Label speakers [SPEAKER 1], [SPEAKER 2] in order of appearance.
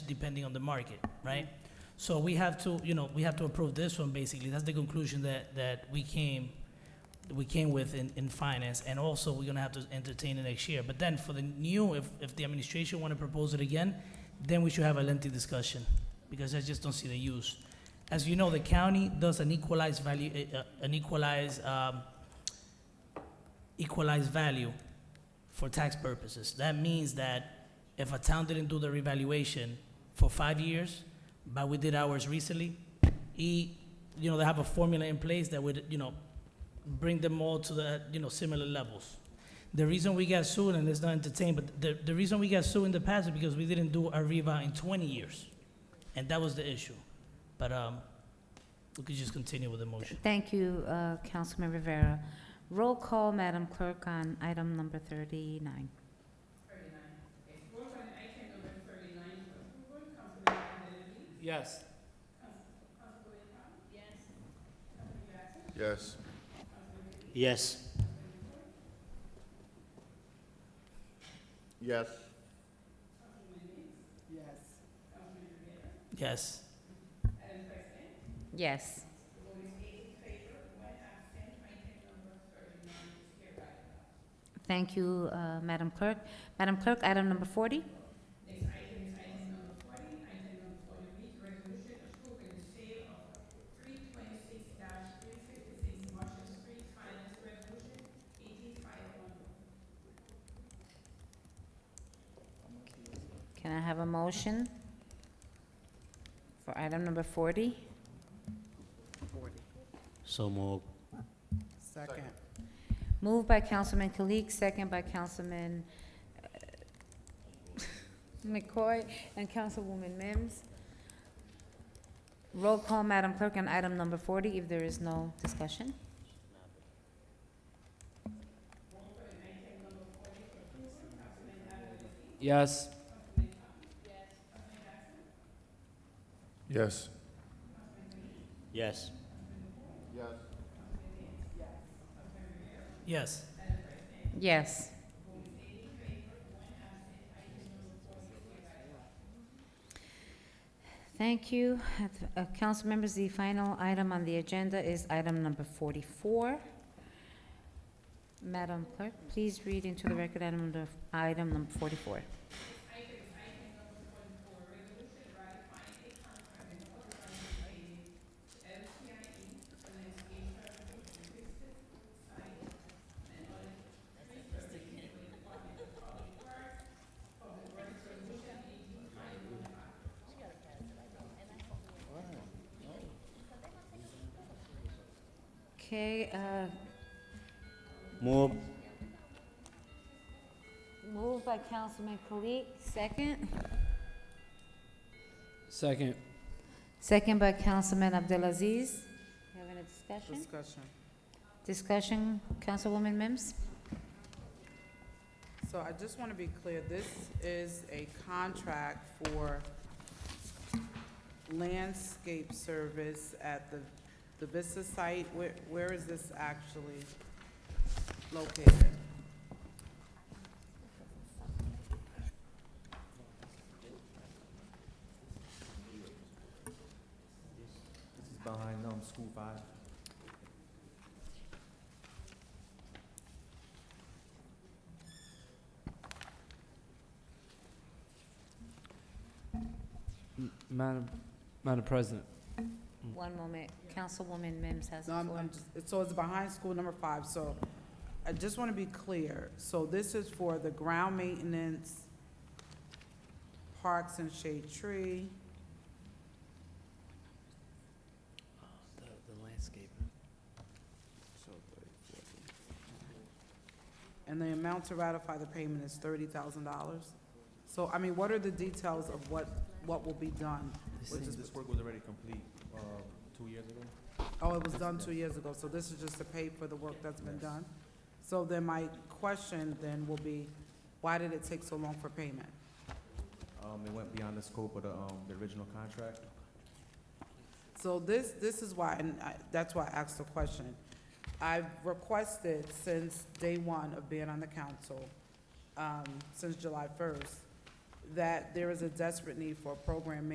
[SPEAKER 1] depending on the market, right? So we have to, you know, we have to approve this one, basically. That's the conclusion that, that we came, we came with in, in finance, and also we're gonna have to entertain it next year. But then for the new, if, if the administration wanna propose it again, then we should have a lengthy discussion, because I just don't see the use. As you know, the county does an equalized value, eh, uh, an equalized, um, equalized value for tax purposes. That means that if a town didn't do the revaluation for five years, but we did ours recently, e, you know, they have a formula in place that would, you know, bring them all to the, you know, similar levels. The reason we got sued, and it's not entertained, but the, the reason we got sued in the past is because we didn't do our reva in twenty years. And that was the issue. But, um, we could just continue with the motion.
[SPEAKER 2] Thank you, uh, Councilman Rivera. Roll call, Madam Clerk, on item number 39.
[SPEAKER 3] Yes.
[SPEAKER 4] Yes.
[SPEAKER 3] Yes.
[SPEAKER 4] Yes.
[SPEAKER 1] Yes.
[SPEAKER 2] Yes. Thank you, uh, Madam Clerk. Madam Clerk, item number 40? Can I have a motion for item number 40?
[SPEAKER 3] So moved.
[SPEAKER 5] Second.
[SPEAKER 2] Moved by Councilman Kalik, second by Councilman uh, McCoy and Councilwoman Mims. Roll call, Madam Clerk, on item number 40, if there is no discussion.
[SPEAKER 3] Yes.
[SPEAKER 4] Yes.
[SPEAKER 3] Yes.
[SPEAKER 4] Yes.
[SPEAKER 1] Yes.
[SPEAKER 2] Yes. Thank you. Uh, Council members, the final item on the agenda is item number 44. Madam Clerk, please read into the record item number, item number 44. Okay, uh,
[SPEAKER 3] Move.
[SPEAKER 2] moved by Councilman Kalik, second.
[SPEAKER 3] Second.
[SPEAKER 2] Second by Councilman Abdelaziz. You having a discussion?
[SPEAKER 5] Discussion.
[SPEAKER 2] Discussion, Councilwoman Mims?
[SPEAKER 5] So I just want to be clear, this is a contract for landscape service at the, the Vista site. Where, where is this actually located?
[SPEAKER 6] This is behind, um, School Five.
[SPEAKER 3] Madam, Madam President.
[SPEAKER 2] One moment, Councilwoman Mims has
[SPEAKER 5] No,
[SPEAKER 2] the
[SPEAKER 5] I'm-
[SPEAKER 2] floor.
[SPEAKER 5] I'm just- So it's behind school number five, so I just want to be clear. So this is for the ground maintenance, parks and shade tree.
[SPEAKER 3] The, the landscape.
[SPEAKER 5] And the amount to ratify the payment is thirty thousand dollars. So, I mean, what are the details of what, what will be done?
[SPEAKER 6] Which is, this work was already complete, uh, two years ago.
[SPEAKER 5] Oh, it was done two years ago, so this is just to pay for the work that's been done? So then my question then will be, why did it take so long for payment?
[SPEAKER 6] Um, it went beyond the scope of the, um, the original contract.
[SPEAKER 5] So this, this is why, and I, that's why I asked the question. I've requested since day one of being on the council, um, since July first, that there is a desperate need for a program